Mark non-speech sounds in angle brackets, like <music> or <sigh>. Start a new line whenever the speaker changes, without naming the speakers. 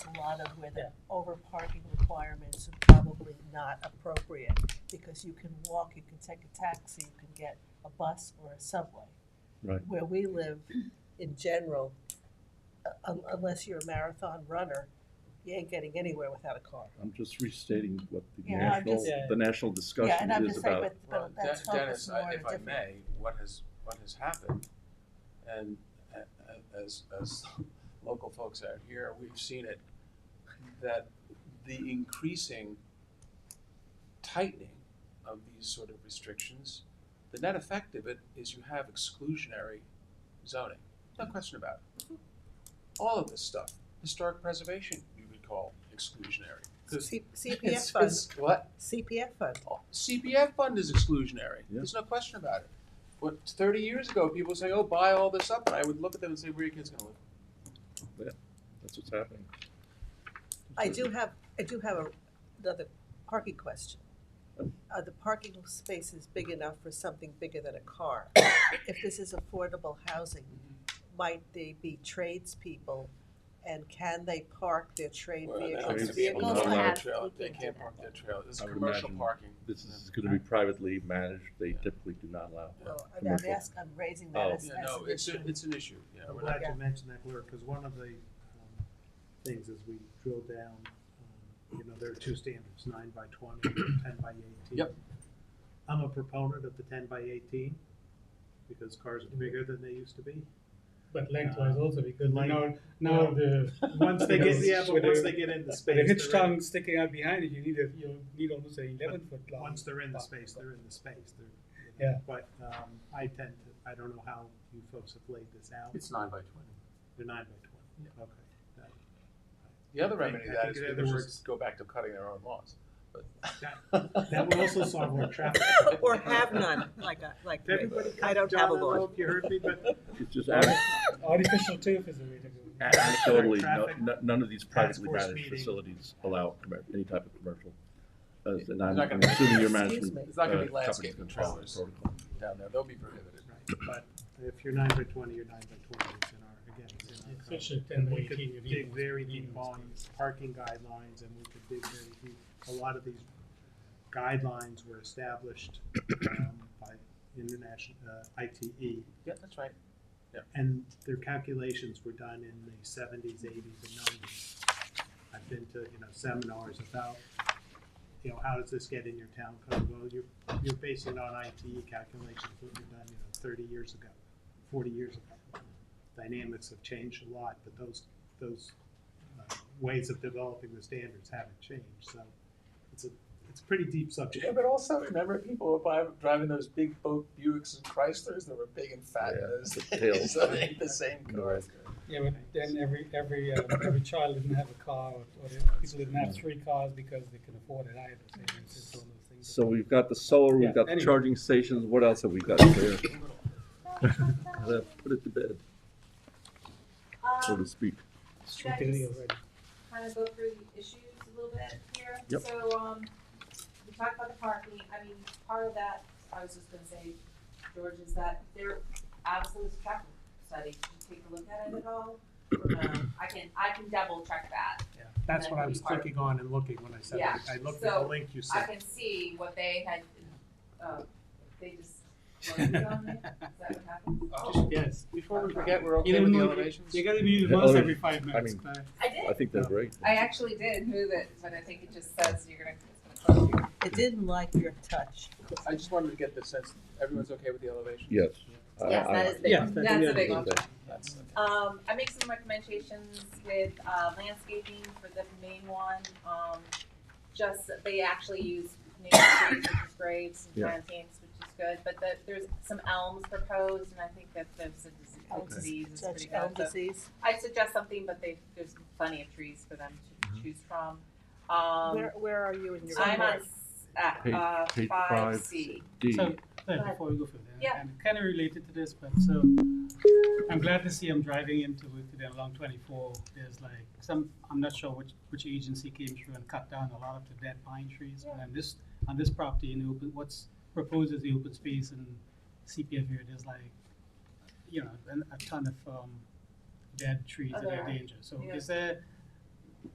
lot of where the over parking requirements are probably not appropriate, because you can walk, you can take a taxi, you can get a bus or a subway.
Right.
Where we live, in general, u- un- unless you're a marathon runner, you ain't getting anywhere without a car.
I'm just restating what the
Yeah, I'm
national,
just-
Yeah.
the national
Yeah,
discussion
and I'm
is
just saying,
about.
but,
Well,
but
De-
that's
Dennis,
focused more
I-
on a
if I
different.
may, what has, what has happened, and a- a- as, as <laughs> local folks out here, we've seen it, that the increasing tightening of these sort of restrictions, the net effect of it is you have exclusionary zoning, no
Mm-hmm.
question about it. All of this stuff, historic preservation, we would call exclusionary, because
C- CPF
<laughs> it's,
fund,
it's, what?
CPF fund.
CPF fund is exclusionary.
Yeah.
There's no question about it. But 30 years ago, people say, "Oh, buy all this up," and I would look at them and say, "Where are your kids going to live?"
That's what's happening.
I do have, I do have a- another parking question. Are the parking spaces big enough for something bigger than a car? If this is affordable housing, might they be tradespeople? And can they park their trade vehicles?
to be able to
Vehicles,
park
I-
their
trailer.
we
They
can do
can't
that.
park their trailer. This is
I would
commercial
imagine
parking.
This is gonna be privately managed, they typically do not allow.
Well, I'm- I'm
Commercial.
ask, I'm raising that
Oh.
as,
Yeah,
as
no,
an
it's, a-
issue.
it's an issue. Yeah,
I'm
we're not,
glad you mentioned that, Blair, because one of the um, things as we drill down, um, you know, there are two standards, nine by twenty and ten by eighteen.
Yep.
I'm a proponent of the ten by eighteen, because cars are bigger than they used to be.
But lengthwise also, because
Length-
now, now
yeah.
the, <laughs>
Once they get, yeah, but
With
once
a-
they get into
the
space.
rich
they're in-
tongue sticking out behind it, you need a, you need almost an eleven foot long.
Once they're in the
park.
space, they're in the space, they're, you know, but, um, I tend to, I don't know how you folks have laid this out,
it's nine by twenty.
they're nine by twenty, okay. Uh,
The other
I think-
remedy to
I
that
think
is
in
people
other words-
just go back to cutting their own lawns. But
That would also solve more traffic.
<laughs> Or have none, like, I- like
If
me.
Everybody.
I don't have a
John, I don't know
lawn.
if you heard me, but
It's just anec-
Artificial turf is the way to go.
anecdotally, no-
Traffic.
no- none of these privately
force
managed
meeting.
facilities allow commer- any type of commercial. uh, And I'm
not
I'm
gonna-
assuming your
Excuse
management.
me.
It's not gonna
uh,
be landscaping
companies follow
trailers.
protocol.
<laughs> down there, they'll be prohibited.
Right, But if you're nine by twenty, you're nine by twenty, it's in our, again, it's in our code.
Especially ten by
We could
eighteen, you need.
dig very deep on parking guidelines, and we could dig very deep, a lot of these guidelines were established, um, by international, uh, ITE,
Yeah, that's right.
and their calculations were done in the seventies, eighties, and nineties. I've been to, you know, seminars about, you know, how does this get in your town code? Well, you're, you're basing it on ITE calculations, that were done, you know, thirty years ago, forty years ago. Dynamics have changed a lot, but those, those uh, ways of developing the standards haven't changed, so it's a, it's a pretty deep subject.
Yeah, but also remember people were buy, driving those big boat Buicks and Chryslers that were big and fat
Yeah,
in those
the
days.
tails.
So they ain't the same cars.
Yeah, but then every, every, uh, every child didn't have a car, or, or people didn't have three cars because they can afford it either, so it's just one of those things.
So we've got the solar,
Yeah,
we've got the
anyway.
charging stations, what else have we got there? Put it to bed, so to
Um,
speak.
should I
Stupidity
just
already.
kind of go through the issues a little bit here?
Yep.
So, um, we talked about the parking, I mean, part of that, I was just gonna say, George, is that there, obviously was a traffic study, did you take a look at it at all? Or no? I can, I can double check that,
Yeah, That's what I was
Part of-
clicking on and looking when I said,
Yeah,
I looked at the
so
link you
I
sent.
can see what they had, uh, they just. loaded it on there. Is that what happened?
Oh, yes. Before we forget, we're
You
okay
don't
with the
know-
elevations?
You gotta be
Yeah,
once
oh,
every five
I
minutes,
mean-
Claire.
I did,
I think they're great.
I actually did move it, but I think it just says you're gonna, it's gonna close your
It didn't like your touch.
I just wanted to get the sense, everyone's okay with the elevation?
Yes. Uh, I-
Yes,
I
that
like
is
it.
big.
Yeah,
That's
that- yeah,
a big
I
one.
like that.
That's, okay.
Um, I make some recommendations with, uh, landscaping for the main one, um, just, that they actually use native trees, which is great, some
Yeah.
plantains, which is good, but the, there's some elms proposed, and I think that there's a disease,
Elm
the disease is
Judge
pretty
Oh, Elm
good, so.
disease,
I suggest something, but they, there's plenty of trees for them
Mm-hmm.
to choose from, um,
where, where are you in your?
I'm on,
report?
s- uh,
Page-
uh,
page
five
five.
C.
D,
So, Claire,
ahead.
before we go further,
Yeah.
and kind of related to this, but so, I'm glad to see I'm driving into it today along twenty-four, there's like some, I'm not sure which, which agency came through and cut down a lot of the dead pine trees, but on this, on this property in the open, what's proposed is the open space and CPF here, there's like, you know, an, a ton of, um, dead trees that
Oh, there
are
are.
dangerous, so
Yeah.
is there,